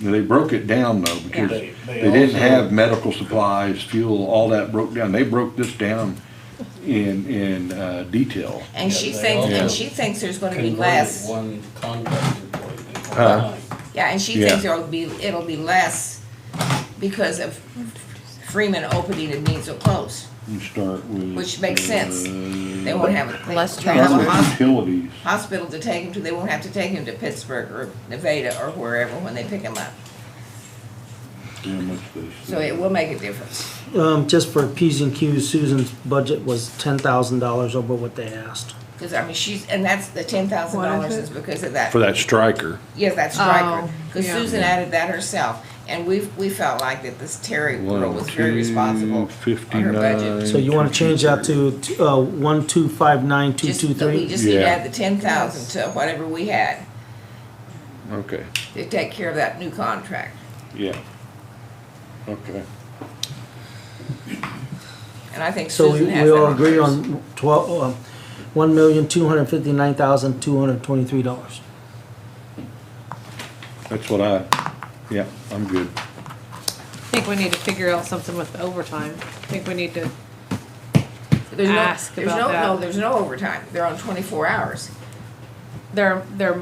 they broke it down though, because They- they they didn't also- have medical supplies, fuel, all that broke down. They broke this down in, in, uh, detail. And she Yeah, they thinks, all- and she thinks there's gonna be Converted less, One contract employee. to one Huh? line. yeah, and she Yeah. thinks there'll be, it'll be less because of Freeman opening and needs will close. You start with. Which makes sense. They They won't have a. Less they'll have a transport. hos- Utilities. Hospital to take him to, they won't have to take him to Pittsburgh or Nevada or wherever when they pick him up. how much they So it spend. will make a difference. Um, just for P's and Q's, Susan's budget was ten thousand dollars over what they asked. Cause I mean, she's, and that's, the ten thousand What dollars is it? is because of that. for that striker. Yes, that's striker. Oh, Cause yeah. Susan added that herself. And we, we felt like that this Terry girl was very responsible on her budget. So you wanna change that to, uh, one, two, five, nine, two, Just, two, that we three? just need to Yeah. add the ten thousand to whatever we had Okay, to take care of that new contract. yeah. Okay. And I think So we, Susan has we that. all agree hers. on twelve, uh, one million, two hundred fifty-nine thousand, two hundred twenty-three dollars. That's what I, yeah, I'm good. I think we need to figure out something with overtime. I think we need to, There's no- ask there's about no- that. No, there's no overtime. They're on twenty-four hours. there, there,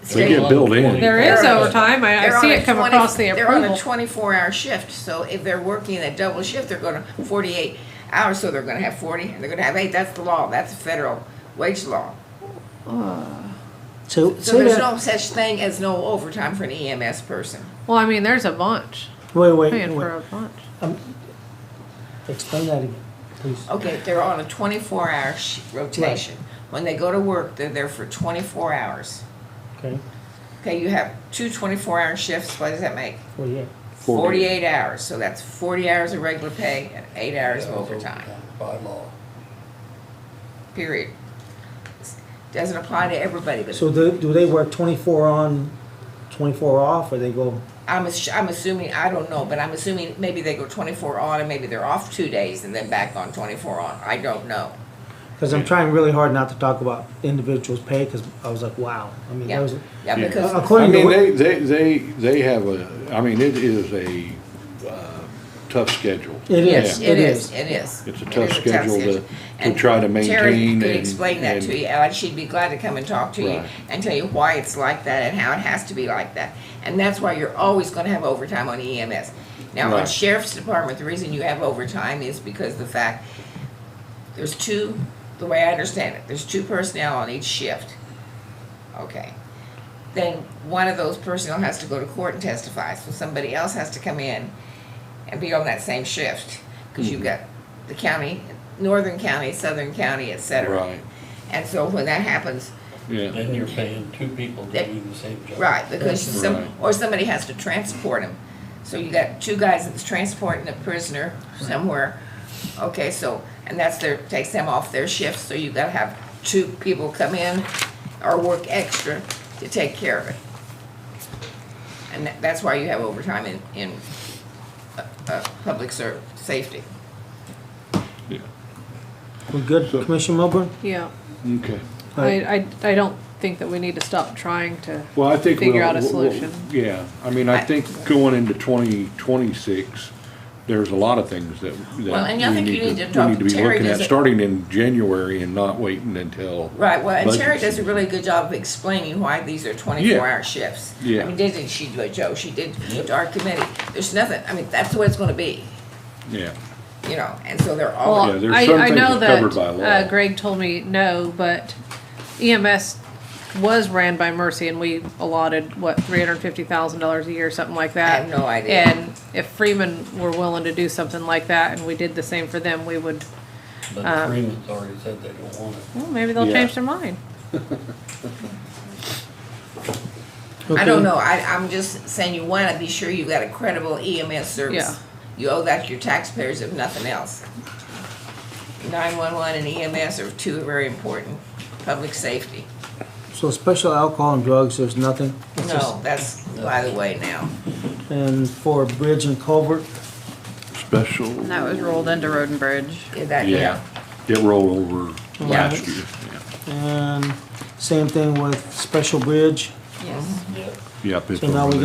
They State- get billed in. there is They're- overtime. I, They're I see on a it come 20 across the They're on a approval. twenty-four hour shift, so if they're working a double shift, they're gonna, forty-eight hours, so they're gonna have forty, and they're gonna have eight, that's the law, that's the federal wage law. So, So say there's that, no such thing as no overtime for an EMS person. Well, I mean, there's a bunch, wait, wait, paying for wait, a bunch. explain that again, please. Okay, they're on a twenty-four hour sh- rotation. When they go to work, they're there for twenty-four hours. Okay, Okay, you have two twenty-four hour shifts, what does that make? forty-eight. Forty. Forty-eight hours, so that's forty hours of regular pay and eight hours of Yeah, overtime. By law. period. Doesn't apply to everybody, but So do, do they work twenty-four on, twenty-four off, or they go, I'm, ass- I'm assuming, I don't know, but I'm assuming maybe they go twenty-four on and maybe they're off two days and then back on twenty-four on. I don't know. cause I'm trying really hard not to talk about individuals' pay, cause I was like, wow, I mean, that Yeah, was. yeah, Yeah. because, I According to mean, what- they, they, they, they have a, I mean, it is a, uh, tough schedule. It yes, is, it it is, is. it is. It's a It tough is schedule to- schedule. to And try to Terry maintain could and- explain that to and- you, and she'd be glad to come and talk to you Right. and tell you why it's like that and how it has to be like that. And that's why you're always gonna have overtime on EMS. Now, on Right. sheriff's department, the reason you have overtime is because the fact there's two, the way I understand it, there's two personnel on each shift. Okay. Then one of those personnel has to go to court and testify, so somebody else has to come in and be on that same shift. Cause you've got the county, northern county, southern county, et cetera. Right, And so when that happens, yeah, Then you're paying two people to do the same job. right, because some, Right. or somebody has to transport him. So you got two guys that's transporting a prisoner somewhere. Okay, so, and that's their, takes them off their shift, so you gotta have two people come in or work extra to take care of it. And that- that's why you have overtime in, in, uh, uh, public ser, safety. yeah, We're good, So- Commissioner Milburn? Yeah, okay. I, I, I don't think that we need to stop trying to. Well, I think. Figure we'll- out a we'll- we'll- solution. Yeah, I mean, I think going into twenty twenty-six, there's a lot of things that, Well, and I that we think you need need to, to we talk need to to be Terry, looking at, does it- starting in January and not waiting until. Right, well, and Terry budget does a season. really good job of explaining why these are twenty-four hour shifts. Yeah. I mean, didn't she do it, Joe? She did Yep. to our committee. There's nothing, I mean, that's the way it's gonna be, Yeah, you know, and so they're all, Yeah, Well, there's I, some I things know that's covered that by law. uh, Greg told me no, but EMS was ran by Mercy and we allotted, what, three hundred and fifty thousand dollars a year, something like that. have no idea. And if Freeman were willing to do something like that and we did the same for them, we would, Uh, But Freeman's already said they don't want it. well, maybe they'll Yeah. change their mind. I don't know, I, I'm just saying you wanna be sure you've got a credible EMS Yeah. service. You owe that to your taxpayers if nothing else. Nine-one-one and EMS are two very important, public safety. So special alcohol and drugs, there's nothing? It's just- No, that's by the way now. And for bridge and culvert, special, That was rolled into Road and Bridge. Yeah, that, yeah, yeah, it rolled over Yeah. last year, yeah. and same thing with special bridge, yes. Yep. Yep, it's So now over we there.